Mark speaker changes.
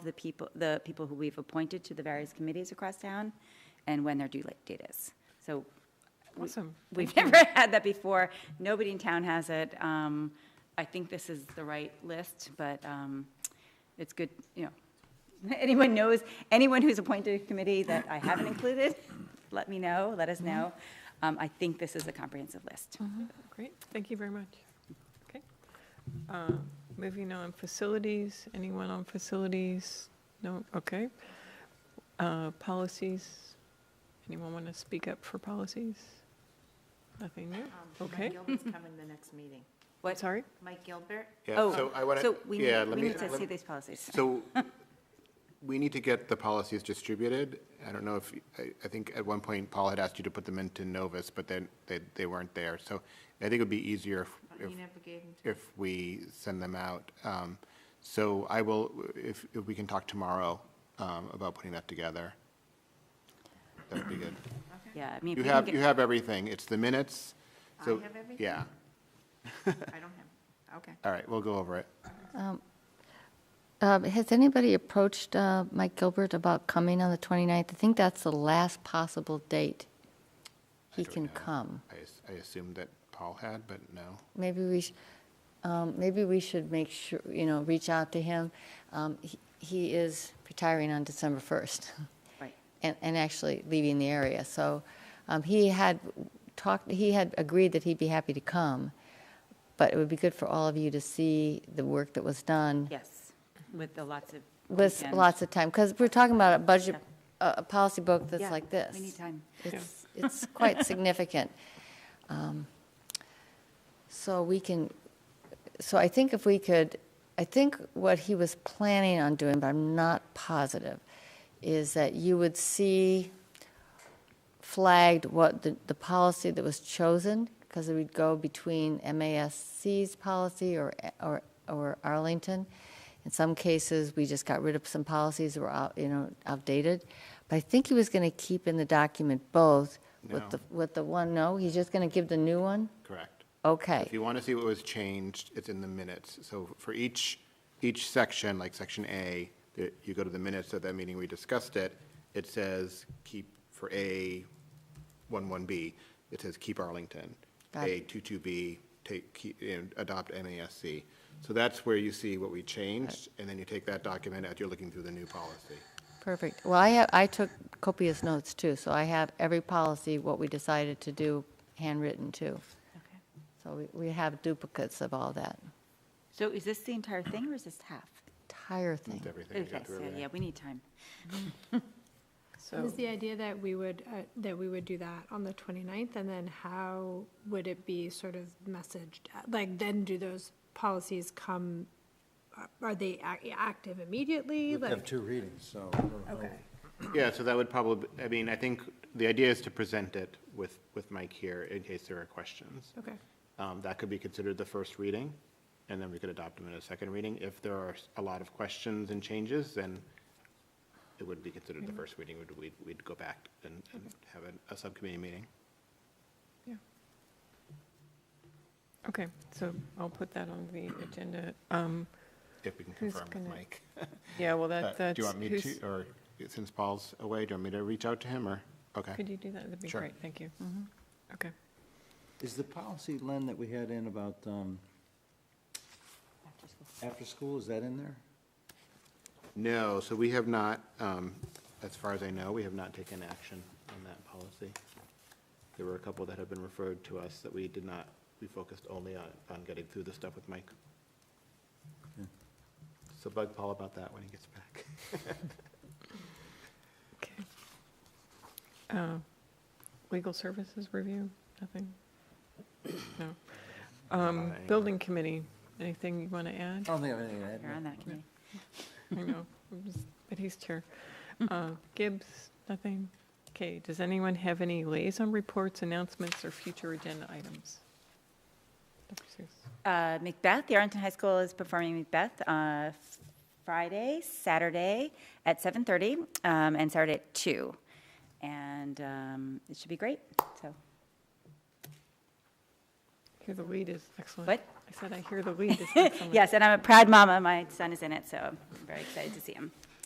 Speaker 1: the people, the people who we've appointed to the various committees across town and when their due date is. So we-
Speaker 2: Awesome.
Speaker 1: we've never had that before. Nobody in town has it. Um, I think this is the right list, but um, it's good, you know. Anyone knows, anyone who's appointed a committee that I haven't included, let me know, let us know.
Speaker 3: Mm-hmm.
Speaker 1: Um, I think this is a comprehensive list.
Speaker 2: Great, thank you very much. Okay. Uh, Moving on, facilities, anyone on facilities? No, okay. Uh, Policies, anyone want to speak up for policies? Nothing
Speaker 4: Um,
Speaker 2: new? Okay.
Speaker 4: Mike Gilbert's coming the next meeting.
Speaker 1: What-
Speaker 2: Sorry?
Speaker 4: Mike Gilbert?
Speaker 5: Yeah,
Speaker 1: Oh,
Speaker 5: so I want to,
Speaker 1: So we
Speaker 5: yeah,
Speaker 1: need,
Speaker 5: let
Speaker 1: we
Speaker 5: me.
Speaker 1: need to
Speaker 5: let-
Speaker 1: see these policies.
Speaker 5: So we need to get the policies distributed. I don't know if, I, I think at one point Paul had asked you to put them into Novus, but then they, they weren't there. So I think it would be easier if-
Speaker 4: But
Speaker 5: if,
Speaker 4: You never gave him to
Speaker 5: if we send them out. Um, So I will, if, if we can talk tomorrow um, about putting that together, that would be good.
Speaker 1: Yeah, I mean. if
Speaker 5: You
Speaker 1: we can
Speaker 5: have,
Speaker 1: get-
Speaker 5: you have everything. It's the minutes.
Speaker 4: I
Speaker 5: So-
Speaker 4: have everything?
Speaker 5: Yeah,
Speaker 4: I don't have, okay.
Speaker 5: all right, we'll go over it.
Speaker 3: Um, Has anybody approached uh, Mike Gilbert about coming on the 29th? I think that's the last possible date he
Speaker 5: don't
Speaker 3: can
Speaker 5: know.
Speaker 3: come.
Speaker 5: I as- I assumed that Paul had, but no.
Speaker 3: Maybe we, sh- um, maybe we should make sure, you know, reach out to him. Um, he- He is retiring on December 1st
Speaker 1: Right.
Speaker 3: and and actually leaving the area. So um, he had talked, he had agreed that he'd be happy to come, but it would be good for all of you to see the work that was done.
Speaker 1: Yes, with the lots of.
Speaker 3: With
Speaker 1: weekend-
Speaker 3: lots of time, because we're talking about a budget, a, a policy book
Speaker 1: Yeah,
Speaker 3: that's like this.
Speaker 1: We need time.
Speaker 3: It's, it's quite significant. Um, So we can, so I think if we could, I think what he was planning on doing, but I'm not positive, is that you would see flagged what the, the policy that was chosen, because it would go between MASC's policy or, or, or Arlington. In some cases, we just got rid of some policies that were out, you know, outdated. But I think he was gonna keep in the document both with
Speaker 5: No.
Speaker 3: the, with the one, no, he's just gonna give the new one?
Speaker 5: Correct.
Speaker 3: Okay.
Speaker 5: If you want to see what was changed, it's in the minutes. So for each, each section, like section A, that you go to the minutes of that meeting, we discussed it, it says keep for A, one one B, it says keep Arlington.
Speaker 3: Got
Speaker 5: A
Speaker 3: it.
Speaker 5: two two B, take, keep, and adopt MASC. So that's where you see what we changed, and then you take that document out, you're looking through the new policy.
Speaker 3: Perfect. Well, I have, I took copious notes too, so I have every policy, what we decided to do, handwritten too. So we, we have duplicates of all that
Speaker 1: So is this the entire thing or is this half?
Speaker 3: entire thing.
Speaker 5: It's everything. you
Speaker 1: Okay,
Speaker 5: got through
Speaker 1: so
Speaker 5: everything.
Speaker 1: yeah, we need time.
Speaker 2: So,
Speaker 6: Was the idea that we would, uh, that we would do that on the 29th, and then how would it be sort of messaged? Like, then do those policies come, are- are they ac- active immediately?
Speaker 7: We have
Speaker 6: Like,
Speaker 7: two readings, so I don't know.
Speaker 6: Okay.
Speaker 5: Yeah, so that would probably, I mean, I think the idea is to present it with, with Mike here in case there are questions.
Speaker 6: okay,
Speaker 5: Um, That could be considered the first reading, and then we could adopt them in a second reading. If there are a lot of questions and changes, then it wouldn't be considered the first reading, We'd- we'd, we'd go back and and have a, a subcommittee meeting.
Speaker 2: okay, so I'll put that on the agenda. Um,
Speaker 5: If we can
Speaker 2: Who's
Speaker 5: confirm
Speaker 2: gonna-
Speaker 5: with Mike.
Speaker 2: Yeah, well,
Speaker 5: Uh,
Speaker 2: that, that's.
Speaker 5: Do you want me
Speaker 2: who's-
Speaker 5: to, or since Paul's away, do you want me to reach out to him, or, okay?
Speaker 2: Could you do that? That'd be
Speaker 5: Sure.
Speaker 2: great, thank you. Okay.
Speaker 7: Is the policy, Len, that we had in about, um, after school, is that in there?
Speaker 5: No, so we have not, um, as far as I know, we have not taken action on that policy. There were a couple that have been referred to us that we did not, we focused only on, on getting through the stuff with Mike. So bug Paul about that when he gets back.
Speaker 2: Okay. Uh, Legal services review, nothing? No. Um,
Speaker 5: anyway.
Speaker 2: Building committee, anything you want to add?
Speaker 7: I don't think I have anything to add.
Speaker 1: You're on that committee.
Speaker 2: I know, I'm just- but he's chair. Uh, Gibbs, nothing? Okay, does anyone have any liaison reports, announcements, or future agenda items? Dr. Seuss.
Speaker 1: Uh, Macbeth, the Arlington High School is performing Macbeth uh, f- Friday, Saturday at 7:30, um, and Saturday at two, And um, it should be great, so.
Speaker 2: Hear the lead is excellent.
Speaker 1: What?
Speaker 2: I said I hear the lead is excellent.
Speaker 1: Yes, and I'm a proud mama, my son is in it, so I'm very excited to see him.